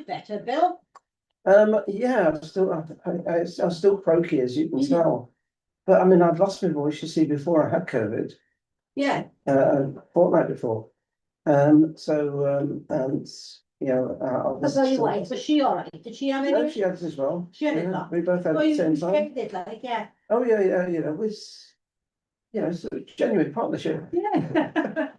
better, Bill? Um, yeah, I'm still, I, I, I- I'm still croaky as you can Mhm. tell. But I mean, I'd lost my voice, you see, before I had COVID, Yeah, uh, a fortnight before. Um, so, um, and, you know, uh, I was. so you wait, was she all right? Did she have No, any? she had it as well. She had it Yeah, last- We both had Well, it you at the same time. did like, yeah, Oh, yeah, yeah, you know, it's, you know, it's a genuine partnership. yeah.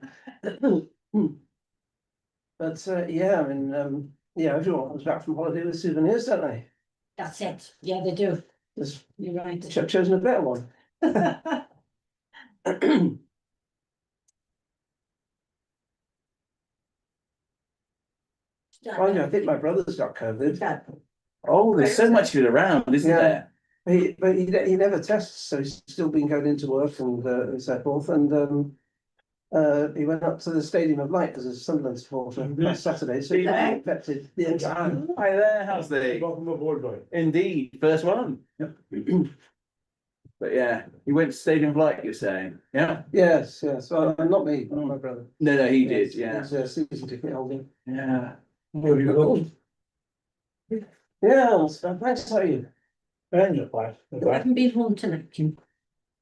But, uh, yeah, I mean, um, yeah, everyone comes back from holiday with souvenirs, don't they? That's it. Yeah, they do. Just You're right. cho- chosen a better one. Oh, yeah, I think my brother's got COVID. Oh, there's so much of it around, isn't Yeah. there? He, but he, ne- he never tests, so he's still been going into work and, uh, and so forth, and, um. Uh, he went up to the Stadium of Light as a Sunderland supporter Mhm. last Saturday, so he Yeah. infected the entire. Hi there, how's the? Welcome aboard, boy. Indeed, first one. Yep. But yeah, you went to Stadium of Light, you're saying, yeah? Yes, yes, well, not me, but my brother. No, no, Mm. he did, Yes, yeah, he's a season ticket holder. yeah. Where you going? Yeah, well, so thanks, how are you? And the place. the You place. haven't been home to napkin.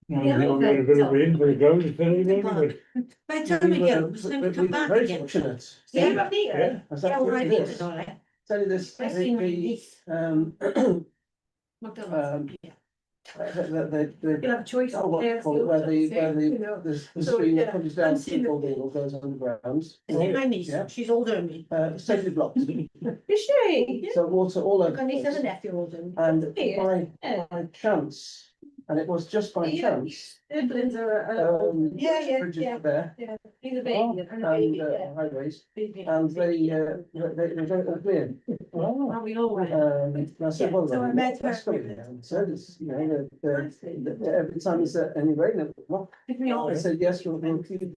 And Yeah, we all got a bit of wind, we go, it's very good, but- By the time we We go, were- it's going we- to come we were back very again. fortunate. Yeah, Yeah, right here. yeah. was Yeah, that all good? right here, it's all Yes. right. Tell you this, I've seen my the, niece, um, McDonald's, um, yeah. the, the, the. You'll have choices. Oh, what, there's call it, where the, options, where you the, know. the, the So, stream that yeah, comes down, I've seen people it. needle goes underground. Is it my niece? Yeah. She's older than me. Uh, it's totally blocked, Is she? so water all over. My niece the has a place. nephew older than me. And Yeah. by, by chance, and it was just by Yeah. chance, Siblings are, uh, um. Yeah, yeah, Bridget yeah. There, he's a baby, and a and, baby, uh, yeah. highways, Baby. and they, uh, they, they don't agree. Are we all right? Um, and I said, Yeah, well, so I then, met her. that's good, and so this, you know, the, the, Nicely. the- every time is any rain, it- well, Did we all- I said, yes, we'll, we'll keep